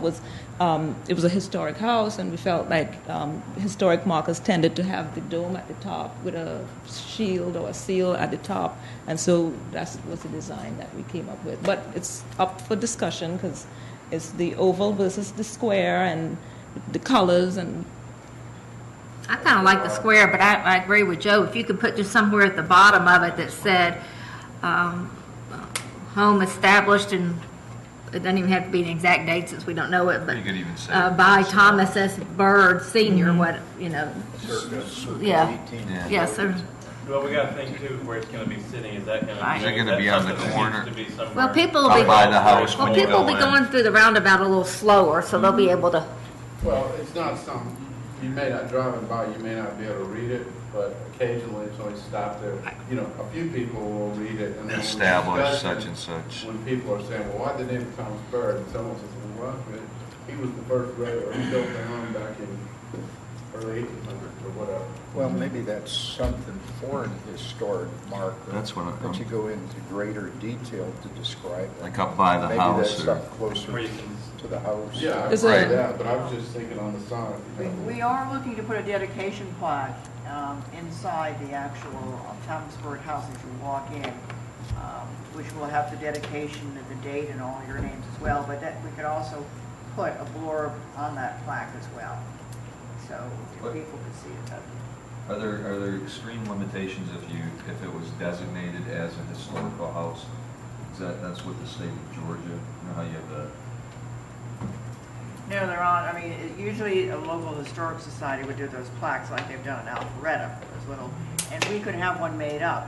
was um, it was a historic house, and we felt like um, historic markers tended to have the dome at the top with a shield or a seal at the top, and so that was the design that we came up with. But it's up for discussion because it's the oval versus the square and the colors and I kind of like the square, but I, I agree with Joe. If you could put just somewhere at the bottom of it that said, um, home established and it doesn't even have to be an exact date since we don't know it, but. You could even say- Uh, by Thomas S. Byrd Mm-hmm. Senior, what, you know, yeah, yes, sir. Well, we gotta think too, where it's gonna be sitting, is that gonna Right. be? Is it gonna be on the corner? Well, people will Up be. by the house Well, when you people will go be in. going through the roundabout a little slower, so they'll be Mm-hmm. able to, Well, it's not something, you may not, driving by, you may not be able to read it, but occasionally it's only stopped there. You know, a few people will read it and then. we'll Establish discuss such it. and such. When people are saying, well, why the name Thomas Byrd? And someone says, well, why? He was the first grader, he built the home back in early eighteen hundreds or whatever. Well, maybe that's something for an historic marker. That's what I- That you go into greater detail to describe it. Like up by the Maybe house that's or, up closer Where you to the house. Yeah, I Is read it- that, but I was just thinking on the sign. We- We are looking to put a dedication plaque um, inside the actual um, Thomasburg house as you walk in, um, which will have the dedication and the date and all your names as well, but that, we could also put a blurb on that plaque as well, so What- people could see it. Are there, are there extreme limitations if you, if it was designated as a historical house? Is that, that's what the state of Georgia, you know how you have the, No, they're on, I mean, it- usually a local historic society would do those plaques like they've done in Alpharetta, those little, and we could have one made up,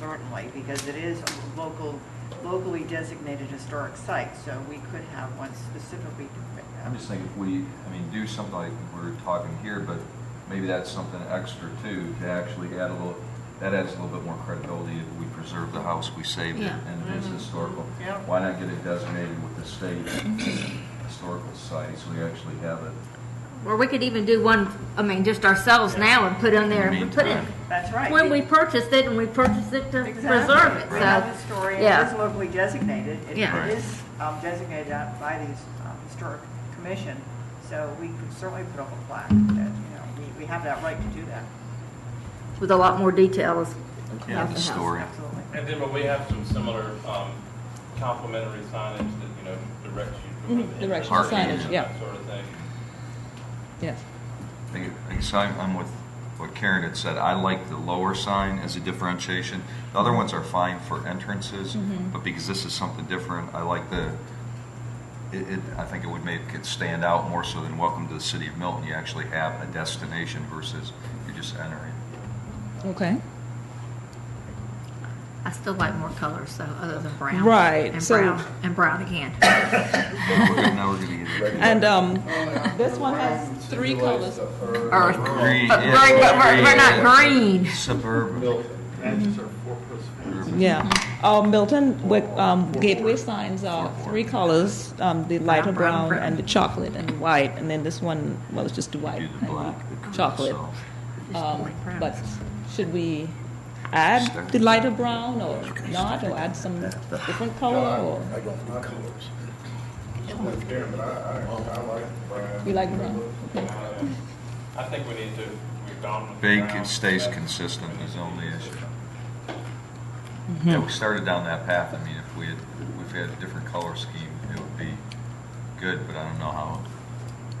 certainly, because it is a local, locally designated historic site, so we could have one specifically. uh, I'm just thinking if we, I mean, do something like we're talking here, but maybe that's something extra too, to actually add a little, that adds a little bit more credibility if we preserve the house, we saved it, Yeah. and it is historical. Yeah. Why not get it designated with the state historical site, so we actually have it? or we could even do one, I mean, just ourselves now and put in there, In the put it, meantime. That's right. when we purchased it, and we purchased it to Exactly. preserve it, We have so. a story, it yeah. is locally designated, It- Yeah. Right. it is um, designated out by the um, Historic Commission, so we could certainly put up a plaque that, you know, we- we have that right to do that. with a lot more detail as. Yeah, the story. Absolutely. And then, but we have some similar, um, complimentary signage that, you know, directs you. to where Mhm, the directional entrance is signage, and yeah. That sort of thing. yes. I I guess I'm, I'm with what Karen had said. I like the lower sign as a differentiation. The other ones are fine for entrances, Mm-hmm. but because this is something different, I like the, it, it, I think it would make it stand out more so than welcome to the city of Milton. You actually have a destination versus you're just entering. Okay. I still like more colors, so other than brown. Right, And so- brown, and brown again. But we're gonna- Now we're gonna get it. And um, Well, This one has Ryan three situates the earth. Earth. Um, Green, But yeah, we're- but we're- we're not yeah. green. Suburban. Built it. That's our four-post fence. yeah, uh, Milton with, um, gateway signs are three colors: um, the lighter Brown, brown, brown, and the chocolate and the white, and then this one well, it's just the white Do the and black, the green, chocolate. so. Just Um, like brown. but should we add the lighter brown or not, or add some different No, color? Or? I I don't do colors. I'm with Karen, but I, I, I like Brian. You like brown? Okay. I think we need to, we're gone with. the Big, brown. it stays consistent is the only issue. Yeah, we started down that path. I mean, if we had, if we had a different color scheme, it would be good, but I don't know how,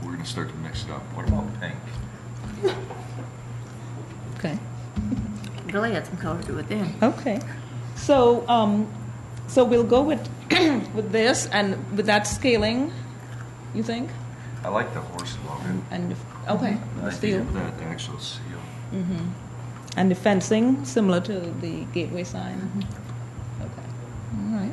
we're gonna start to mix it up. What about pink? okay. Really had some color to it then. Okay. So, um, so we'll go with with this and with that scaling. You think? I like the horse logo. And if, okay, I steel. think that the actual seal. And the fencing, similar to the gateway sign? Okay, all right.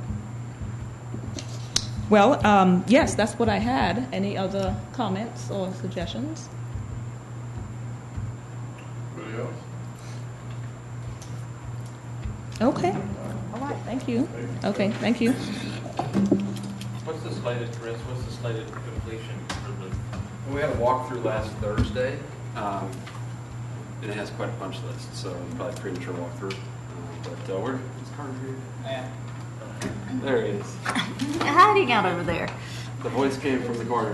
Well, um, yes, that's what I had. Any other comments or suggestions? Anybody else? Okay, all right, thank you. Okay, thank you. What's the slated, Chris, what's the slated completion for the? We had a walkthrough last Thursday, um, and it has quite a punch list, so probably premature walkthrough. Uh, But uh, we're, it's Carter here. There he is. Hiding out over there. The voice came from the corner.